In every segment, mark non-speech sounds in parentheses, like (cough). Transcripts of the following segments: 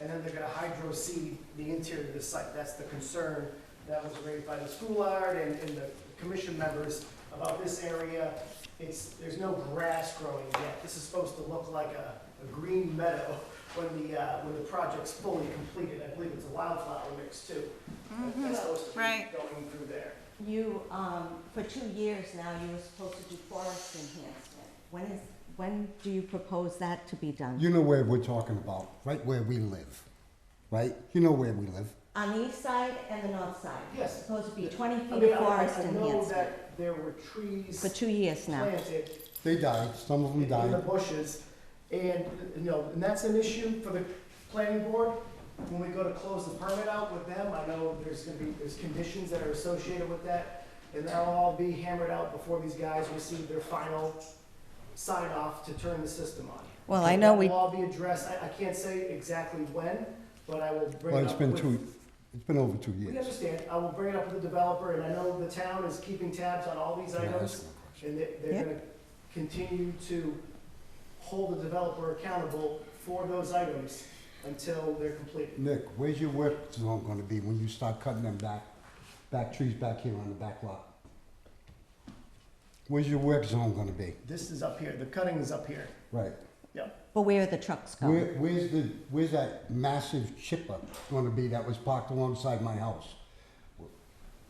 and then they're gonna hydro seed the interior of the site. That's the concern that was raised by the schoolyard and, and the commission members about this area. It's, there's no grass growing yet. This is supposed to look like a, a green meadow (laughs) when the, uh, when the project's fully completed. I believe it's a wildflower mix too. That's supposed to be right. going through there. You, um, for two years now, you were supposed to do forest enhancement. When is, when do you propose that to be done? You know where we're talking about, right where we live, right? You know where we live. On the east side and the north side? Yes. It's Supposed to be twenty I feet mean, of I- forest I know enhancement. that there were trees For two years now. planted They died, some of them in the died. bushes. And, you know, and that's an issue for the planning board. When we go to close the permit out with them, I know there's gonna be, there's conditions that are associated with that. And that'll all be hammered out before these guys receive their final sign off to turn the system on. Well, I know we- That will all be addressed. I, I can't say exactly when, but I will bring it up. Well, it's been with- two, it's been over two We years. understand. I will bring it up with the developer and I know the town is keeping tabs on all these Can I ask items. you a question? And they, they're Yep. gonna continue to hold the developer accountable for those items until they're completed. Nick, where's your work zone gonna be when you start cutting them back, back trees back here on the back lot? Where's your work zone gonna be? This is up here, the cutting is up here. Right. Yep. But where are the trucks Where, going? where's the, where's that massive chipper gonna be that was parked alongside my house?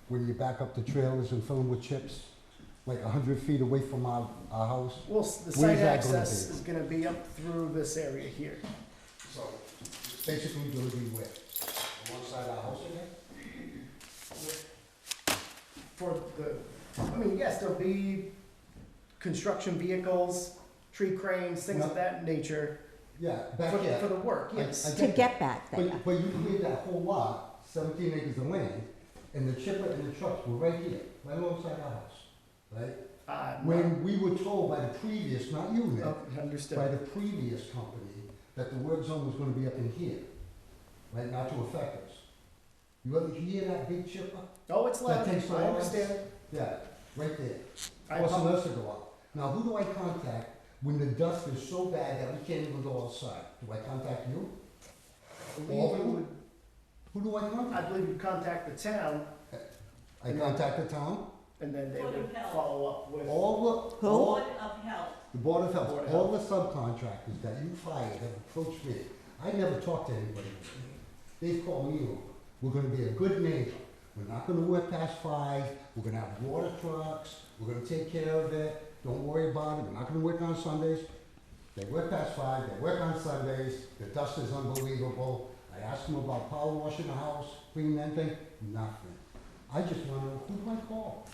When you back up the trailers and fill them with chips, like a hundred feet away from our, our house? Well, s- the Where's site that gonna access be? is gonna be up through this area here. So, basically gonna be where? Alongside our house again? For the, I mean, yes, there'll be construction vehicles, tree cranes, things of No. that nature Yeah, for, back the- for here. the work, I- I yes. To that. get back there. But, but you cleared that whole lot, seventeen acres of land, and the chipper and the trucks were right here, right alongside our house, right? Uh, no. When we were told by the previous, not you, Nick, Oh, by Understood. the previous company that the work zone was gonna be up in here, right, not to affect us. You ever hear that big chipper? Oh, it's loud, That takes I long. understand. Yeah, right there. I Forcing apo- us to go out. Now, who do I contact when the dust is so bad that we can't even go outside? Do I contact you? All of you? Who do I I contact? believe you contact the town I contact the town, And then they Board would of Health. follow up with, all the, Who? all, Board of Health. the Board of Board of Health, all the subcontractors that you fired have approached me. I never talked to anybody. They've called me over. We're gonna be a good neighbor. We're not gonna work past five. We're gonna have water trucks. We're gonna take care of it. Don't worry about it. We're not gonna work on Sundays. They work past five, they work on Sundays. The dust is unbelievable. I asked them about power washing the house, cleaning anything, nothing. I just wanna know, who do I call?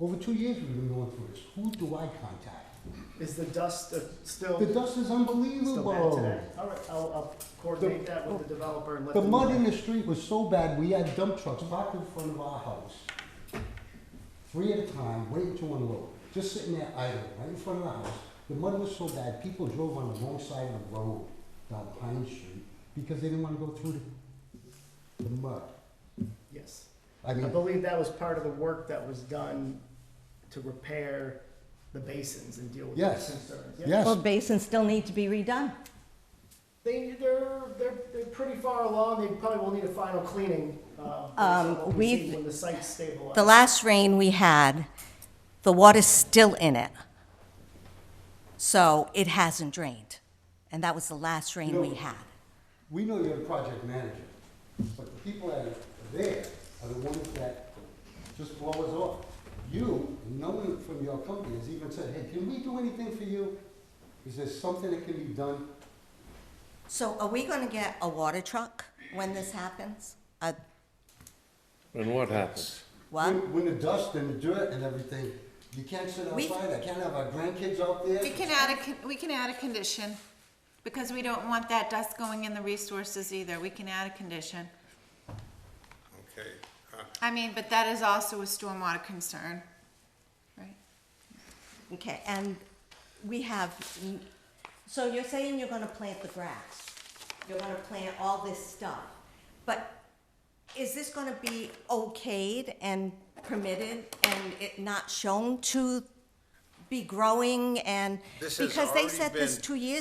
Over two years we've been going through this. Who do I contact? is the dust uh, still, The dust is still bad unbelievable. today? All right, I'll, I'll coordinate that with the developer and let The them know. mud in the street was so bad, we had dump trucks parked in front of our house, three at a time, waiting to unload, just sitting there idle, right in front of our house. The mud was so bad, people drove on the wrong side of the road down Pine Street because they didn't want to go through the, the mud. Yes. I I mean, believe that was part of the work that was done to repair the basins and deal with those Yes. concerns. Yeah. Well, yes, basins still need to be redone. They, they're, they're, they're pretty far along, they probably will need a final cleaning, uh, based Um, on what we see we've- when the site's stabilized. The last rain we had, the water's still in it. So it hasn't drained. And that was the last rain we No. had. we know you're the project manager, but the people that are there are the ones that just blow us off. You, no one from your company has even said, hey, can we do anything for you? Is there something that can be done? So are we gonna get a water truck when this happens? A And what happens? what? When- When the dust and the dirt and everything, you can't sit We- outside, I can't have our grandkids out there. We can add a, con- we can add a condition, because we don't want that dust going in the resources either, we can add a condition. Okay, uh, I mean, but that is also a stormwater concern, right? Okay, and we have, so you're saying you're gonna plant the grass, you're gonna plant all this stuff, but is this gonna be okayed and permitted and it not shown to be growing and? This has Because they already said this been- two years